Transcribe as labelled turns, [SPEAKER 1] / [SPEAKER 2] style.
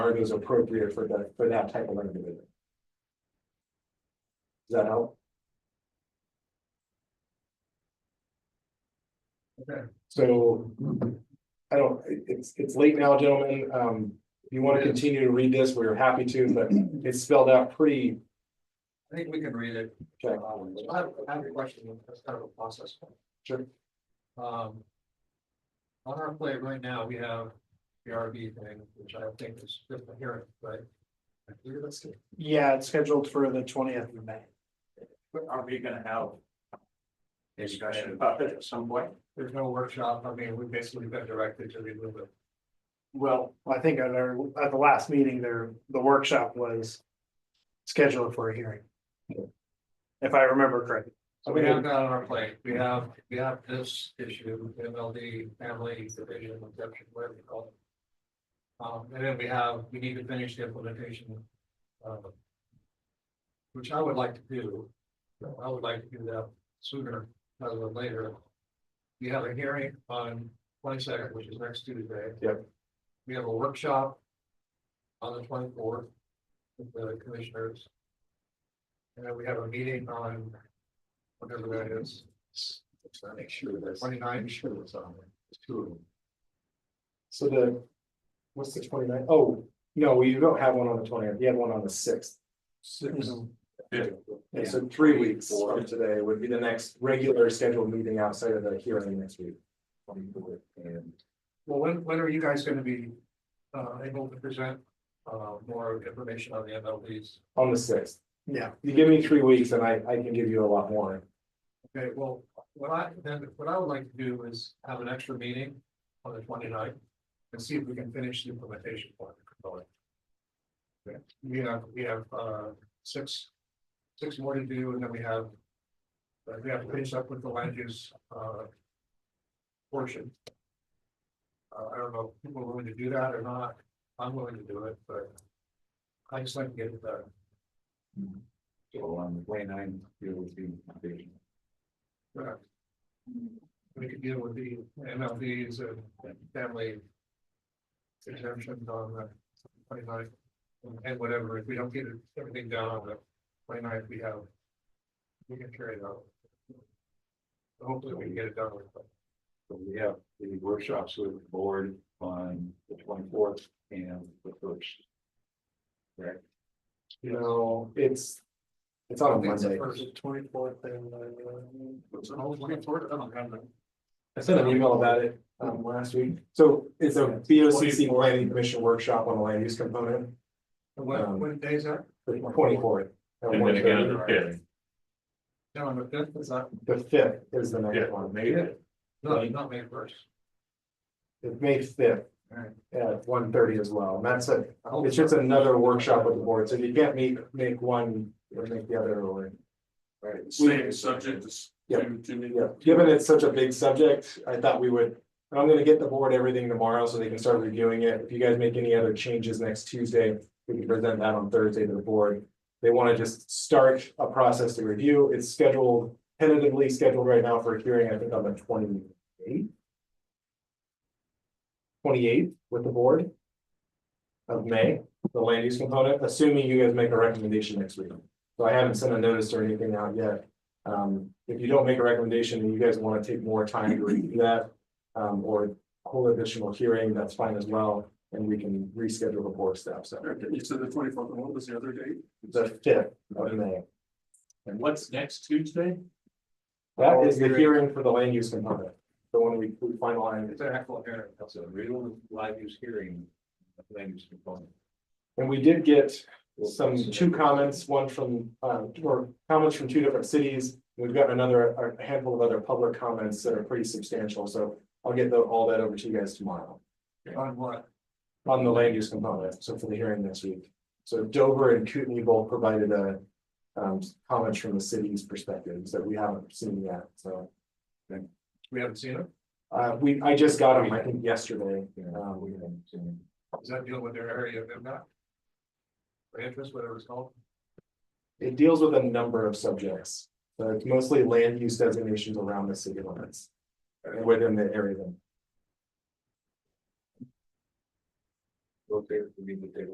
[SPEAKER 1] are those appropriate for that, for that type of individual? Does that help?
[SPEAKER 2] Okay.
[SPEAKER 1] So, I don't, it- it's, it's late now, gentlemen, um, if you wanna continue to read this, we're happy to, but it's spelled out pretty,
[SPEAKER 2] I think we can read it.
[SPEAKER 1] Okay.
[SPEAKER 2] Um, I have, I have a question, that's kind of a process. one.
[SPEAKER 1] Sure.
[SPEAKER 2] Um. On our plate right now, we have the RV thing, which I think is just a hearing, right? I believe that's it.
[SPEAKER 3] Yeah, it's scheduled for the twentieth of May.
[SPEAKER 4] Are we gonna have? Discussion about it Uh, at some point?
[SPEAKER 2] There's no workshop, I mean, we've basically been directed to remove it.
[SPEAKER 3] Well, I think at our, at the last meeting there, the workshop was scheduled for a hearing. If I remember correctly.
[SPEAKER 2] So we have that on our plate, we have, we have this issue, MLD, family division, exception, whatever you call it. Um, and then we have, we need to finish the implementation. um, Which I would like to do, I would like to do that sooner rather than later. We have a hearing on twenty second, which is next Tuesday.
[SPEAKER 1] Yep.
[SPEAKER 2] We have a workshop on the twenty fourth with the commissioners. And then we have a meeting on whatever that is.
[SPEAKER 4] Make sure that's.
[SPEAKER 2] Twenty nine,
[SPEAKER 4] sure that's on there. It's two of them.
[SPEAKER 1] so the. What's the 29th? Oh no, we don't have one on the 20th. you have one on the sixth. And so three weeks from today would be the next regular scheduled meeting outside of the hearing next week.
[SPEAKER 4] And
[SPEAKER 2] well, when, when are you guys gonna be, uh, able to present, uh, more information on the MLBs?
[SPEAKER 1] On the sixth,
[SPEAKER 3] Yeah,
[SPEAKER 1] you give me three weeks and I, I can give you a lot more.
[SPEAKER 2] Okay, well, what I, then, what I would like to do is have an extra meeting on the 29th and see if we can finish the implementation part. of the component. We have, we have, uh, six, six more to do, and then we have, uh, we have to finish up with the land use, uh, portion. Uh, I don't know if people are willing to do that or not, I'm willing to do it, but I just like to get it done.
[SPEAKER 4] so on the twenty nine, it would be. big.
[SPEAKER 2] Correct. We could deal with the MLDs and family. Exemptions on the twenty ninth. And whatever, if we don't get it- everything down on the twenty ninth, we have. We can carry it out. Hopefully we can get it done. with, but
[SPEAKER 4] So we have the workshops with the board on the twenty fourth and the first.
[SPEAKER 1] You know, it's, it's
[SPEAKER 2] I
[SPEAKER 1] on a
[SPEAKER 2] think it's the
[SPEAKER 1] Monday.
[SPEAKER 2] first
[SPEAKER 3] twenty fourth and
[SPEAKER 2] It's an old 24th, oh, I don't have
[SPEAKER 4] Um,
[SPEAKER 2] them.
[SPEAKER 1] I sent an email about it, um, last week. So it's a B O C C planning commission workshop on the land use component,
[SPEAKER 2] And What, what day is that?
[SPEAKER 1] the twenty-fourth.
[SPEAKER 5] And then again, the fifth,
[SPEAKER 2] No, on the fifth, is that,
[SPEAKER 1] The fifth is the
[SPEAKER 5] Yeah.
[SPEAKER 1] next one,
[SPEAKER 5] maybe.
[SPEAKER 2] no, not May first.
[SPEAKER 1] It's May fifth.
[SPEAKER 2] Alright.
[SPEAKER 1] At one thirty as well, and that's it.
[SPEAKER 2] I hope
[SPEAKER 1] It's just another workshop with the board, so if you can't meet, make one, or make the other, or.
[SPEAKER 4] Right.
[SPEAKER 5] Same subject as.
[SPEAKER 1] Yeah.
[SPEAKER 5] to- to me.
[SPEAKER 1] Yeah, given it's such a big subject, I thought we would, and I'm gonna get the board everything tomorrow so they can start reviewing it. If you guys make any other changes next Tuesday, we can present that on Thursday to the board. They wanna just start a process to review. It's scheduled, tentatively scheduled right now for a hearing, I think on the twenty eighth. Twenty eighth with the board. Of May, the land use component, assuming you guys make a recommendation next week. So I haven't sent a notice or anything out yet. Um, if you don't make a recommendation and you guys want to take more time to review that, um, or hold additional hearing, that's fine as well. And we can reschedule the board staff, so
[SPEAKER 5] Okay, You said the twenty fourth, what was the other date?
[SPEAKER 1] the fifth of May.
[SPEAKER 5] And what's next Tuesday?
[SPEAKER 1] That is the hearing for the land use component, the one we we finalized.
[SPEAKER 2] It's an actual hearing.
[SPEAKER 4] So real live use hearing. Land use component.
[SPEAKER 1] And we did get some two comments, one from, uh, or comments from two different cities. We've got another, a handful of other public comments that are pretty substantial, so I'll get the- all that over to you guys tomorrow.
[SPEAKER 2] On what?
[SPEAKER 1] on the land use component, so for the hearing next week. So Dover and Kootenai both provided a um comments from the city's perspectives that we haven't seen yet, so.
[SPEAKER 2] We haven't seen it.
[SPEAKER 1] Uh, we, I just got them, I think yesterday, Um,
[SPEAKER 4] Yeah, we haven't seen it.
[SPEAKER 2] Does that deal with their area of impact? Or interest, whatever it's called?
[SPEAKER 1] it deals with a number of subjects. But it's mostly land use designations around the city limits. And within the area.
[SPEAKER 4] Okay, we need to take a